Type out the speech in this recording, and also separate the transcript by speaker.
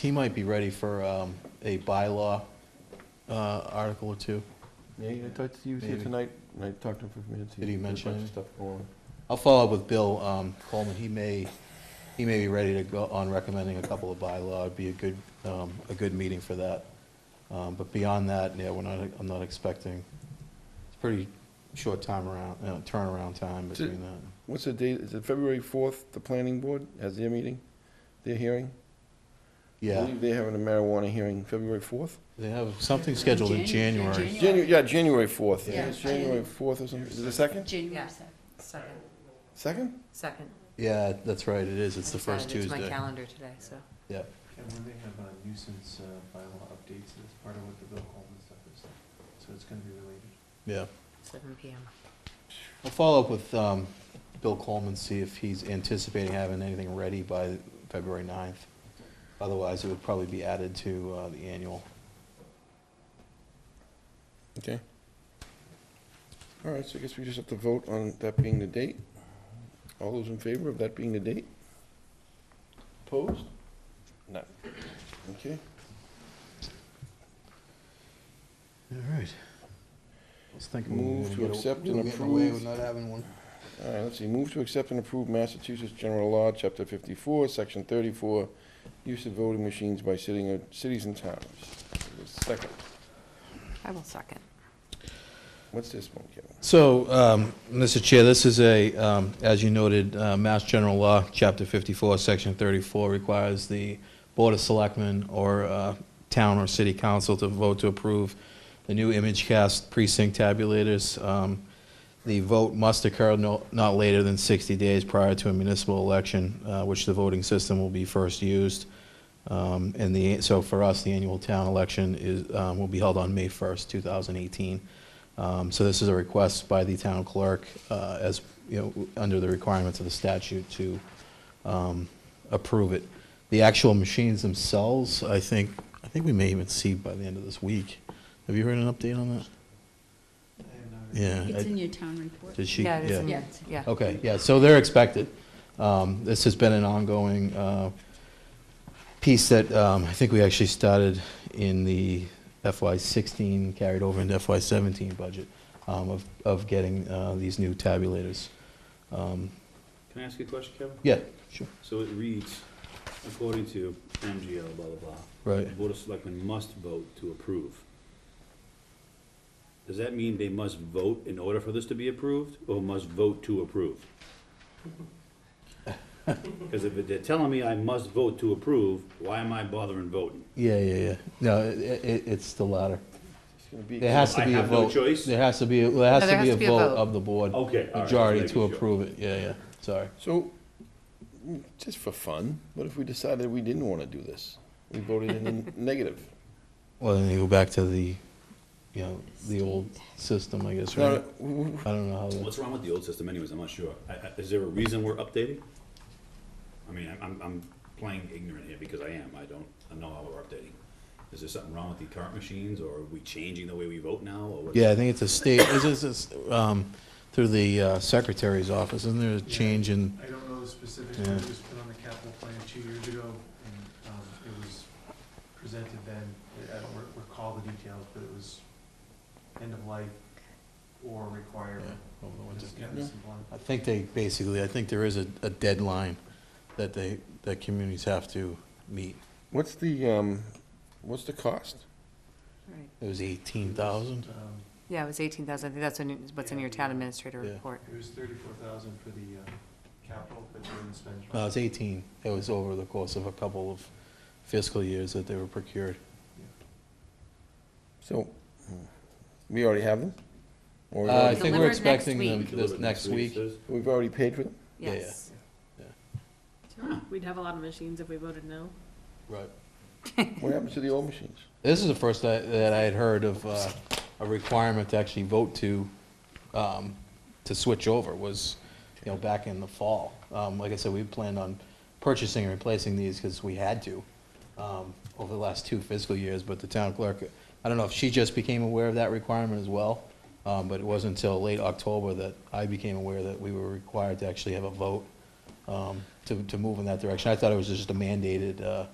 Speaker 1: he might be ready for um, a bylaw uh, article or two.
Speaker 2: Yeah, I talked to you here
Speaker 1: Maybe.
Speaker 2: tonight, and I talked to him for a few minutes.
Speaker 1: Did he
Speaker 2: there's a
Speaker 1: mention
Speaker 2: bunch of
Speaker 1: it?
Speaker 2: Stuff going on.
Speaker 1: I'll follow up with Bill um, Coleman. He may, he may be ready to go on recommending a couple of bylaw. It'd be a good, um, a good meeting for that. Um, But beyond that, yeah, we're not, I'm not expecting, it's pretty short time around, uh, turnaround time between that.
Speaker 2: What's the date, is it February fourth, the planning board has their meeting, their hearing? I
Speaker 1: Yeah,
Speaker 2: believe they're having a marijuana hearing February fourth?
Speaker 1: they have something scheduled in
Speaker 3: Janu- yeah,
Speaker 1: January.
Speaker 2: January, yeah, January fourth,
Speaker 3: Yeah.
Speaker 2: it's January fourth or something, is it the second?
Speaker 3: January
Speaker 4: Yeah.
Speaker 3: 7th.
Speaker 4: Second,
Speaker 2: Second?
Speaker 4: second.
Speaker 1: Yeah, that's right, it is. It's the first
Speaker 4: It's my
Speaker 1: Tuesday.
Speaker 4: calendar today, so.
Speaker 1: Yeah,
Speaker 5: And when they have uh, nuisance uh, bylaw updates, that's part of what the Bill Coleman stuff is, so it's gonna be related.
Speaker 1: yeah.
Speaker 4: Seven PM.
Speaker 1: I'll follow up with um, Bill Coleman, see if he's anticipating having anything ready by February 9th. Otherwise, it would probably be added to uh, the annual.
Speaker 2: Okay. All right, so I guess we just have to vote on that being the date. All those in favor of that being the date? Opposed? No. Okay.
Speaker 1: All right. I was thinking. we were
Speaker 2: Move
Speaker 1: gonna
Speaker 2: to
Speaker 1: get a-
Speaker 2: accept
Speaker 1: we
Speaker 2: and
Speaker 1: were getting away
Speaker 2: approve.
Speaker 1: with not having one.
Speaker 2: All right, let's see, move to accept and approve Massachusetts General Law, Chapter 54, Section 34, use of voting machines by sitting, cities and towns. Second,
Speaker 4: I will second.
Speaker 2: what's this one, Kevin?
Speaker 1: So, um, Mr. Chair, this is a, um, as you noted, uh, Mass General Law, Chapter 54, Section 34, requires the Board of Selectmen or uh, Town or City Council to vote to approve the new image cast precinct tabulators. Um, The vote must occur no- not later than 60 days prior to a municipal election, uh, which the voting system will be first used. Um, And the, so for us, the annual town election is, um, will be held on May 1st, 2018. Um, So this is a request by the town clerk uh, as, you know, under the requirements of the statute to um, approve it. The actual machines themselves, I think, I think we may even see by the end of this week. Have you heard an update on that?
Speaker 5: I have not-
Speaker 1: Yeah.
Speaker 3: It's
Speaker 1: I-
Speaker 3: in your town report.
Speaker 1: Did she?
Speaker 4: Yeah, it is in
Speaker 3: Yeah.
Speaker 4: minutes, yeah.
Speaker 1: Okay, yeah, so they're expected. Um, This has been an ongoing uh, piece that um, I think we actually started in the FY '16, carried over into FY '17 budget um, of of getting uh, these new tabulators. Um,
Speaker 6: Can I ask you a question, Kevin?
Speaker 1: Yeah, sure,
Speaker 6: So it reads, according to MGL, blah, blah, blah,
Speaker 1: right.
Speaker 6: the Board of Selectmen must vote to approve. Does that mean they must vote in order for this to be approved, or must vote to approve? Because if they're telling me I must vote to approve, why am I bothering voting?
Speaker 1: Yeah, yeah, yeah. No, i- i- it's the latter.
Speaker 2: It's gonna be-
Speaker 1: There has to
Speaker 6: I
Speaker 1: be a
Speaker 6: have no
Speaker 1: vote.
Speaker 6: choice?
Speaker 1: There has to be, Oh, there has
Speaker 4: No,
Speaker 1: to be a vote of the board.
Speaker 6: Okay, Oh, all right, just
Speaker 1: Majority to
Speaker 6: making sure.
Speaker 1: approve it, yeah, yeah, sorry.
Speaker 2: So, mm, just for fun, what if we decided we didn't want to do this? We voted in the negative.
Speaker 1: Well, then you go back to the, you know, the old system, I guess,
Speaker 2: No,
Speaker 1: right?
Speaker 2: no, w- w-
Speaker 1: I don't know how that.
Speaker 6: What's wrong with the old system anyways, I'm not sure. I- I- Is there a reason we're updating? I mean, I'm- I'm, I'm playing ignorant here because I am, I don't, I know how we're updating. Is there something wrong with the current machines, or are we changing the way we vote now, or what?
Speaker 1: Yeah, I think it's a state, is this, is, um, through the uh, secretary's office, isn't there a change in,
Speaker 5: I don't know the specifics,
Speaker 1: Yeah.
Speaker 5: but it was put on the capital plan two years ago, and um, it was presented then. I don't re- recall the details, but it was end of life or required.
Speaker 1: Yeah, over the winter?
Speaker 5: Just kind of simple.
Speaker 1: I think they, basically, I think there is a, a deadline that they, that communities have to meet.
Speaker 2: What's the, um, what's the cost?
Speaker 4: Right.
Speaker 1: It was eighteen thousand?
Speaker 5: Um,
Speaker 4: Yeah, it was eighteen thousand, I think that's in- is what's in your town administrator
Speaker 1: Yeah.
Speaker 4: report.
Speaker 5: It was thirty-four thousand for the uh, capital, but they didn't spend.
Speaker 1: No, it was eighteen. It was over the course of a couple of fiscal years that they were procured.
Speaker 2: So, mm, we already have them? Or we
Speaker 1: Uh, I
Speaker 2: already-
Speaker 1: think we're
Speaker 4: Delivered next
Speaker 1: expecting them
Speaker 4: week.
Speaker 1: this next week.
Speaker 6: says?
Speaker 2: we've already paid for them?
Speaker 1: Yeah, yeah.
Speaker 4: Yes.
Speaker 7: We'd have a lot of machines if we voted no.
Speaker 1: Right.
Speaker 2: What happened to the old machines?
Speaker 1: This is the first that, that I had heard of, uh, a requirement to actually vote to, um, to switch over was, you know, back in the fall. Um, like I said, we planned on purchasing and replacing these because we had to, um, over the last two fiscal years, but the town clerk, I don't know if she just became aware of that requirement as well, um, but it wasn't until late October that I became aware that we were required to actually have a vote, um, to, to move in that direction. I thought it was just a mandated, uh,